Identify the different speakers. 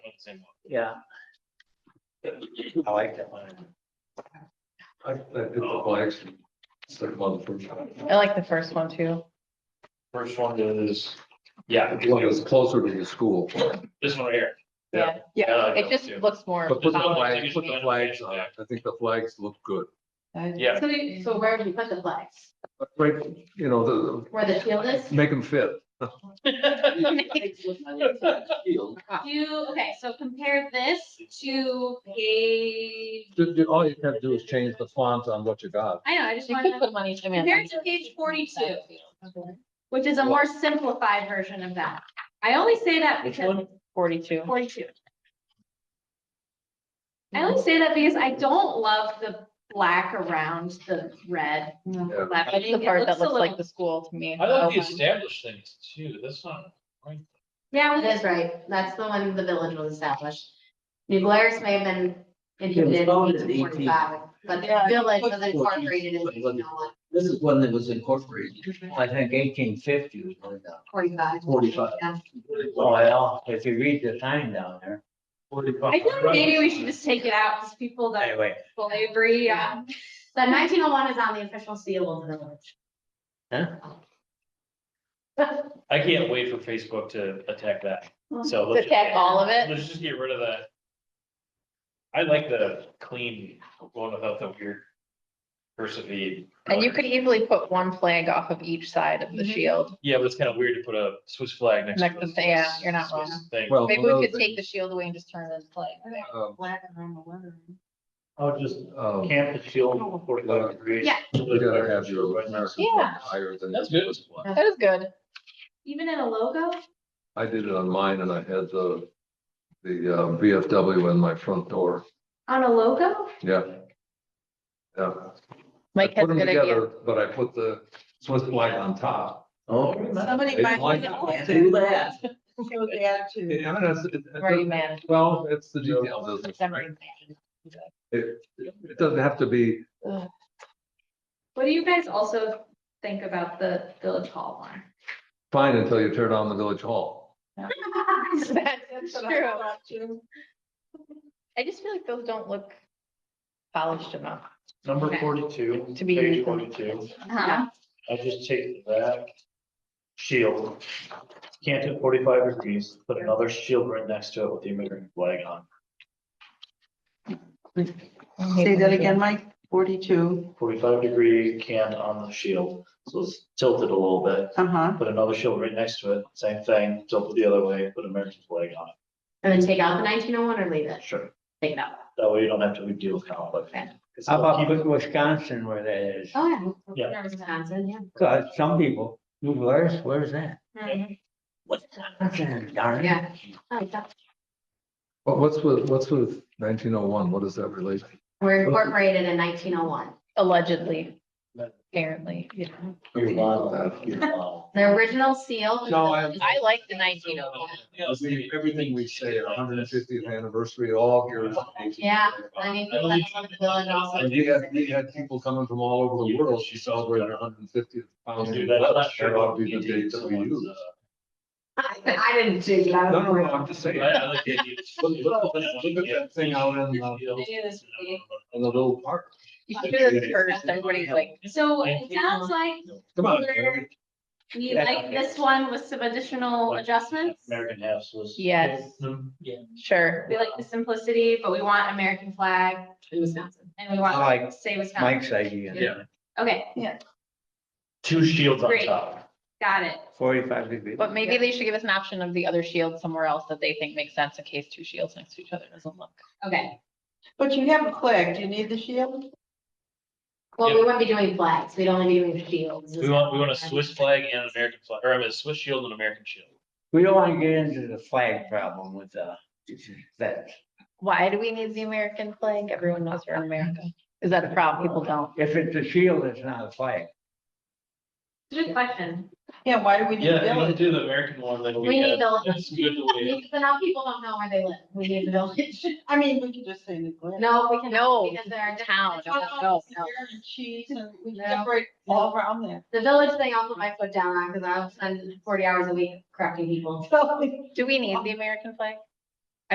Speaker 1: and-
Speaker 2: yeah.
Speaker 1: I like that one.
Speaker 3: I, I did
Speaker 1: Oh.
Speaker 3: the flags, second one, the first one.
Speaker 4: I like the first one too.
Speaker 1: First one is, yeah,
Speaker 3: The one that's closer to the school,
Speaker 1: this one right here.
Speaker 4: Yeah.
Speaker 1: I like
Speaker 4: It
Speaker 1: that
Speaker 4: just
Speaker 1: one too.
Speaker 4: looks more.
Speaker 3: but put the
Speaker 1: How much
Speaker 3: flags,
Speaker 1: is
Speaker 3: put the
Speaker 1: it?
Speaker 3: flags on, it. I think the flags look good.
Speaker 1: Yeah.
Speaker 5: So, you- so where do you put the flags?
Speaker 3: But Right, you know, the,
Speaker 5: Where the shield is?
Speaker 3: the- make them fit.
Speaker 5: Do, you- okay, so compare this to page.
Speaker 3: The- the- All you have to do is change the font on what you got.
Speaker 5: I know, I just
Speaker 4: You
Speaker 5: wanted
Speaker 4: could
Speaker 5: to,
Speaker 4: put money. I mean,
Speaker 5: compared to page forty-two,
Speaker 4: Okay.
Speaker 5: which is a more simplified version of that. I only say that
Speaker 1: Which
Speaker 5: because
Speaker 1: one?
Speaker 4: Forty-two.
Speaker 5: forty-two. I only say that because I don't love the black around the red
Speaker 4: That's
Speaker 5: leavening.
Speaker 4: the
Speaker 5: It
Speaker 4: part that
Speaker 5: a
Speaker 4: looks like the
Speaker 5: little-
Speaker 4: school to me.
Speaker 1: I like the
Speaker 4: Oh,
Speaker 1: established things too, that's not. right.
Speaker 5: Yeah,
Speaker 6: That
Speaker 5: with
Speaker 6: is right. That's the one the village was established. New Glarus may have been
Speaker 7: It
Speaker 6: inhibited
Speaker 7: was
Speaker 6: in
Speaker 7: founded in
Speaker 6: eighteen forty-five, but the
Speaker 4: Yeah.
Speaker 6: village was incorporated in oh eighteen
Speaker 7: This is one that was incorporated, I think eighteen fifty was one down.
Speaker 6: forty-five.
Speaker 7: 45.
Speaker 6: Yeah.
Speaker 7: Well, if you read the time down there.
Speaker 5: I feel like maybe we should just take it out, because people that
Speaker 7: Anyway,
Speaker 5: fully agree, um,
Speaker 6: The nineteen oh one is on the official seal of the village.
Speaker 1: I can't wait for Facebook to attack that, so. let's
Speaker 4: To attack
Speaker 1: just-
Speaker 4: all of it?
Speaker 1: Let's just get rid of that. I like the clean one without the weird. Persevere.
Speaker 4: And you could easily put one flag off of each side of the shield.
Speaker 1: Yeah, but it's kind of weird to put a Swiss flag next
Speaker 4: Next
Speaker 1: to.
Speaker 4: to
Speaker 1: the
Speaker 4: the- yeah,
Speaker 1: Swiss-
Speaker 4: you're not
Speaker 1: Swiss
Speaker 4: wrong.
Speaker 1: thing.
Speaker 3: Oh, Well,
Speaker 4: Maybe we
Speaker 3: another
Speaker 4: could
Speaker 3: thing,
Speaker 4: take the shield away and just turn it into flag.
Speaker 3: um,
Speaker 6: Black around the leather.
Speaker 1: I'll just
Speaker 3: um,
Speaker 1: camp the shield forty-five degrees.
Speaker 5: Yeah.
Speaker 3: You gotta have your American
Speaker 4: Oh. Yeah.
Speaker 3: flag higher than.
Speaker 1: That's good.
Speaker 3: this one.
Speaker 4: That is good.
Speaker 5: Even in a logo?
Speaker 3: I did it on mine and I had the, the uh, VFW in my front door,
Speaker 5: On a logo?
Speaker 3: yeah. Yeah.
Speaker 4: Mike
Speaker 3: I put
Speaker 4: has a
Speaker 3: them
Speaker 4: good idea.
Speaker 3: together, But I put the Swiss flag on top.
Speaker 7: oh.
Speaker 8: Somebody
Speaker 3: It's
Speaker 8: might
Speaker 3: like-
Speaker 8: do that. Show the attitude.
Speaker 3: Yeah, I mean, it's- it- it
Speaker 4: Right,
Speaker 3: doesn't-
Speaker 4: man.
Speaker 3: Well, it's the details, isn't it? right? It, it doesn't have to be,
Speaker 5: What do you guys also think about the village hall one?
Speaker 3: fine until you tear down the village hall.
Speaker 4: Uh-huh. That's true.
Speaker 8: true.
Speaker 4: I just feel like those don't look polished enough.
Speaker 1: Number
Speaker 5: Okay.
Speaker 1: forty-two.
Speaker 4: To be
Speaker 1: page
Speaker 4: used in-
Speaker 1: Forty-two.
Speaker 5: Uh-huh.
Speaker 1: I just take that shield, can't do forty-five degrees, put another shield right next to it with the American flag on,
Speaker 8: Say that again, Mike, forty-two,
Speaker 1: forty-five degree can on the shield. So it's tilted a little bit,
Speaker 8: uh-huh,
Speaker 1: put another shield right next to it, same thing, tilt it the other way, put American flag on it.
Speaker 6: And then take out the nineteen oh one or leave it,
Speaker 1: Sure.
Speaker 6: take it out.
Speaker 1: That way you don't have to deal with conflict.
Speaker 6: Okay.
Speaker 1: It's
Speaker 7: How
Speaker 1: all-
Speaker 7: about with Wisconsin where that is?
Speaker 6: Oh,
Speaker 1: Yeah.
Speaker 6: yeah. Wisconsin, yeah.
Speaker 7: Cause some people, New Glarus, where's that? Wisconsin, darn it.
Speaker 6: Yeah. I like that.
Speaker 3: But what's with, what's with nineteen oh one? What does that relate?
Speaker 6: We're incorporated in nineteen oh one.
Speaker 4: Allegedly, apparently, you know.
Speaker 7: Your model, your
Speaker 1: um,
Speaker 7: model.
Speaker 6: The original seal.
Speaker 3: No, I-
Speaker 4: I like the nineteen oh one.
Speaker 3: Everything we say, our hundred and fiftieth anniversary, all gears.
Speaker 6: Yeah. I mean,
Speaker 1: I believe-
Speaker 6: that's on the village also.
Speaker 3: And we had, we had people coming from all over the world. She celebrated her hundred and fiftieth.
Speaker 1: Do that. I'm not sure
Speaker 3: That'll
Speaker 1: about
Speaker 3: be the date that we
Speaker 1: someone's,
Speaker 3: use.
Speaker 1: uh,
Speaker 6: I didn't dig it out.
Speaker 3: No, no, no, I'm just
Speaker 1: I
Speaker 3: saying.
Speaker 1: I like the idea.
Speaker 3: Look look at that- look at that thing out in the, in the little park.
Speaker 4: You should do this first, everybody's like,
Speaker 5: So it sounds like
Speaker 3: Come on. Jerry.
Speaker 5: we like this one with some additional adjustments.
Speaker 1: American half Swiss.
Speaker 4: Yes. sure.
Speaker 5: We like the simplicity, but we want American flag
Speaker 6: In Wisconsin.
Speaker 5: and we
Speaker 7: I like
Speaker 5: want, say Wisconsin.
Speaker 7: Mike's idea.
Speaker 1: Yeah.
Speaker 5: Okay,
Speaker 1: Two shields on
Speaker 5: Great.
Speaker 1: top.
Speaker 5: got it.
Speaker 7: Forty-five degrees.
Speaker 4: But maybe they should give us an option of the other shield somewhere else that they think makes sense in case two shields next to each other doesn't look.
Speaker 5: Okay.
Speaker 8: but you haven't clicked, you need the shield?
Speaker 6: Well, we wouldn't be doing flags, we'd only be doing shields.
Speaker 1: We want, we want a Swiss flag and an American flag, or I mean, a Swiss shield and American shield.
Speaker 7: We don't wanna get into the flag problem with, uh, that.
Speaker 4: Why do we need the American flag? Everyone knows we're in America. Is that a problem? People don't.
Speaker 7: If it's a shield, it's not a flag.
Speaker 5: Good question.
Speaker 8: Yeah, why do we need
Speaker 1: Yeah, if you don't
Speaker 8: village?
Speaker 1: do the American one, then we
Speaker 6: We need
Speaker 1: had.
Speaker 6: the,
Speaker 1: That's good the way.
Speaker 6: but now people don't know where they live, we need the village.
Speaker 8: I mean, we could just say New Glarus.
Speaker 6: No, we can.
Speaker 4: No,
Speaker 6: Because there are
Speaker 4: town.
Speaker 6: different.
Speaker 4: No, no, no.
Speaker 8: And cheese and we
Speaker 6: No.
Speaker 8: separate all around there.
Speaker 6: The village thing, I'll put my foot down on, because I'll spend forty hours a week correcting people.
Speaker 8: So,
Speaker 4: Do we need the American flag?